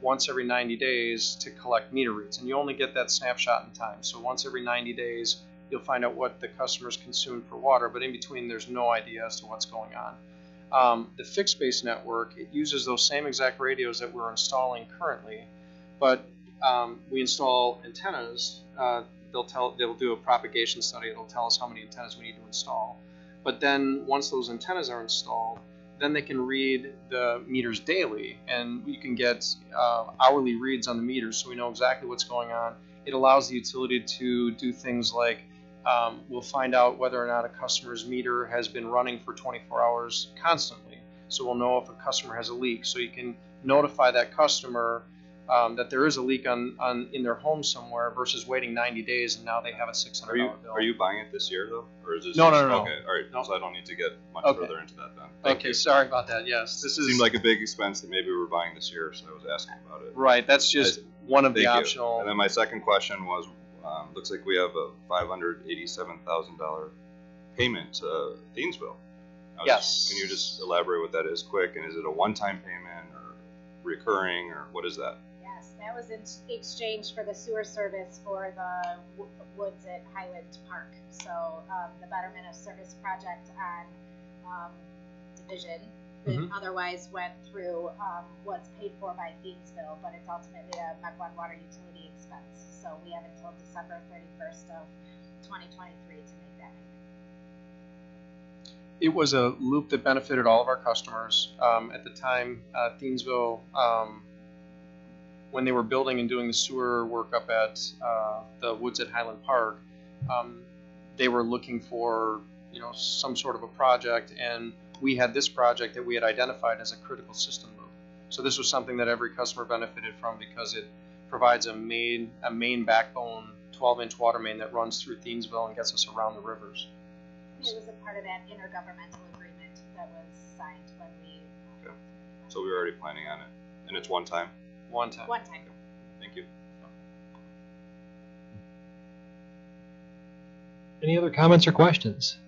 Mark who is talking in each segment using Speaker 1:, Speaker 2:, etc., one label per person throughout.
Speaker 1: once every 90 days to collect meter reads, and you only get that snapshot in time. So once every 90 days, you'll find out what the customers consume for water, but in between, there's no idea as to what's going on. Um, the fixed base network, it uses those same exact radios that we're installing currently, but um, we install antennas. Uh, they'll tell they'll do a propagation study. It'll tell us how many antennas we need to install. But then once those antennas are installed, then they can read the meters daily, and you can get uh, hourly reads on the meters, so we know exactly what's going on. It allows the utility to do things like um, we'll find out whether or not a customer's meter has been running for 24 hours constantly. So we'll know if a customer has a leak. So you can notify that customer um, that there is a leak on, on in their home somewhere versus waiting 90 days and now they have a $600
Speaker 2: Are you
Speaker 1: bill.
Speaker 2: are you buying it this year though, or is this?
Speaker 1: No,
Speaker 2: just-
Speaker 1: no, no, no.
Speaker 2: Okay, all right.
Speaker 1: No.
Speaker 2: So I don't need to get much
Speaker 1: Okay.
Speaker 2: further into that then. Thank
Speaker 1: okay,
Speaker 2: you.
Speaker 1: sorry about that. Yes, this
Speaker 2: This
Speaker 1: is
Speaker 2: seemed like a big expense that maybe we were buying this year, so I was asking about it.
Speaker 1: right. That's just one of the
Speaker 2: Thank you.
Speaker 1: optional.
Speaker 2: And then my second question was, um, looks like we have a five hundred eighty-seven thousand dollar payment to Thiensville. I was-
Speaker 1: Yes.
Speaker 2: Can you just elaborate what that is quick, and is it a one-time payment or recurring, or what is that?
Speaker 3: Yes, that was in exchange for the sewer service for the wo- woods at Highland Park. So um, the betterment of service project on um, Division, that
Speaker 1: Mhm.
Speaker 3: otherwise went through um, what's paid for by Gainesville, but it's ultimately a Mequon Water Utility expense. So we have until December 31st of 2023 to make that payment.
Speaker 1: it was a loop that benefited all of our customers. Um, at the time, uh, Thiensville, um, when they were building and doing the sewer work up at uh, the woods at Highland Park, um, they were looking for you know some sort of a project, and we had this project that we had identified as a critical system loop. So this was something that every customer benefited from because it provides a main a main backbone 12-inch water main that runs through Thiensville and gets us around the rivers.
Speaker 3: It was a part of that intergovernmental agreement that was signed when we.
Speaker 2: Okay. So we were already planning on it, and it's one time.
Speaker 1: One time.
Speaker 3: One time.
Speaker 2: Thank you.
Speaker 4: Any other comments or questions?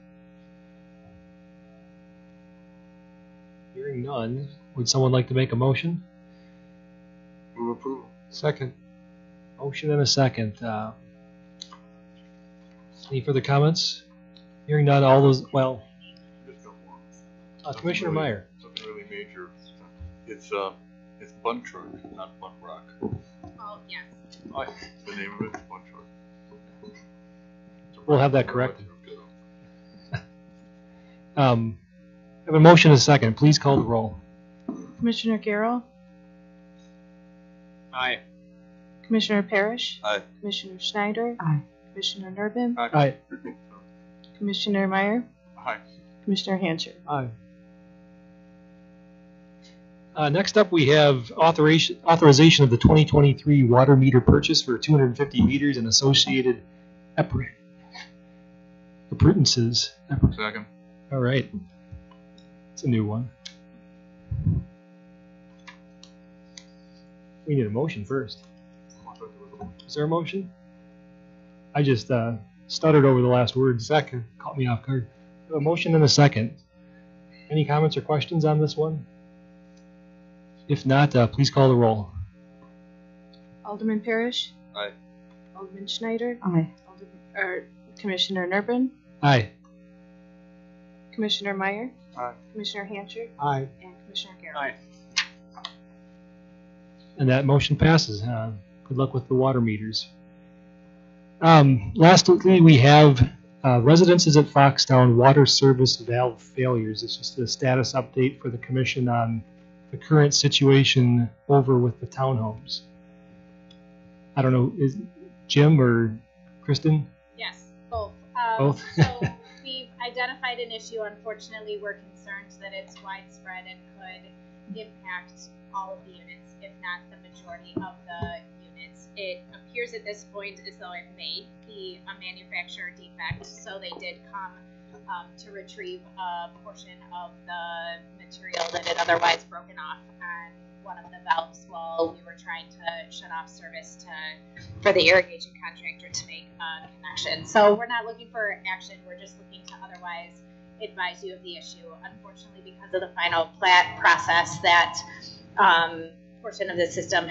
Speaker 4: Hearing none, would someone like to make a motion?
Speaker 2: Move approval.
Speaker 4: Second. Motion and a second. Uh, Any further comments? Hearing none, all those, well,
Speaker 5: Just got one.
Speaker 4: uh, Commissioner Meyer.
Speaker 5: Something really major. It's, uh, it's Bun Truck, not Bun Rock.
Speaker 3: Oh, yes.
Speaker 5: It's The name of it, Bun Truck. It's a
Speaker 4: We'll
Speaker 5: rock
Speaker 4: have that
Speaker 5: truck,
Speaker 4: corrected.
Speaker 5: you know.
Speaker 4: Um, I Have a motion and a second. Please call the roll.
Speaker 6: Commissioner Garrell,
Speaker 1: Aye.
Speaker 6: Commissioner Parrish.
Speaker 2: Aye.
Speaker 6: Commissioner Schneider.
Speaker 7: Aye.
Speaker 6: Commissioner Nervin.
Speaker 2: Aye.
Speaker 4: Aye.
Speaker 6: Commissioner Meyer.
Speaker 5: Hi.
Speaker 6: Commissioner Hancher.
Speaker 4: Aye. Uh, next up, we have authorization, authorization of the 2023 water meter purchase for 250 meters and associated appur- appurtenances. Appur-
Speaker 5: Second.
Speaker 4: All right. It's a new one. We need a motion first.
Speaker 5: I thought there was a-
Speaker 4: Is there a motion? I just uh, stuttered over the last word. Second. Caught me off guard. A motion and a second. Any comments or questions on this one? If not, uh, please call the roll.
Speaker 6: Alderman Parrish.
Speaker 2: Aye.
Speaker 6: Alderman Schneider.
Speaker 7: Aye.
Speaker 6: Alderman, or Commissioner Nervin.
Speaker 4: Aye.
Speaker 6: Commissioner Meyer.
Speaker 1: Aye.
Speaker 6: Commissioner Hancher.
Speaker 4: Aye.
Speaker 6: And Commissioner Garrell.
Speaker 1: Aye.
Speaker 4: And that motion passes. Uh, good luck with the water meters. Um, lastly, we have uh, residences at Foxtown water service valve failures. It's just a status update for the commission on the current situation over with the townhomes. I don't know, is Jim or Kristen?
Speaker 3: Yes, both. Um,
Speaker 4: Both.
Speaker 3: so we've identified an issue. Unfortunately, we're concerned that it's widespread and could impact all of the units, if not the majority of the units. It appears at this point as though it may be a manufacturer defect. So they did come um, to retrieve a portion of the material that had otherwise broken off on one of the valves while we were trying to shut off service to for the irrigation contractor to make a connection. So we're not looking for action, we're just looking to otherwise advise you of the issue. Unfortunately, because of the final plat process, that um, portion of the system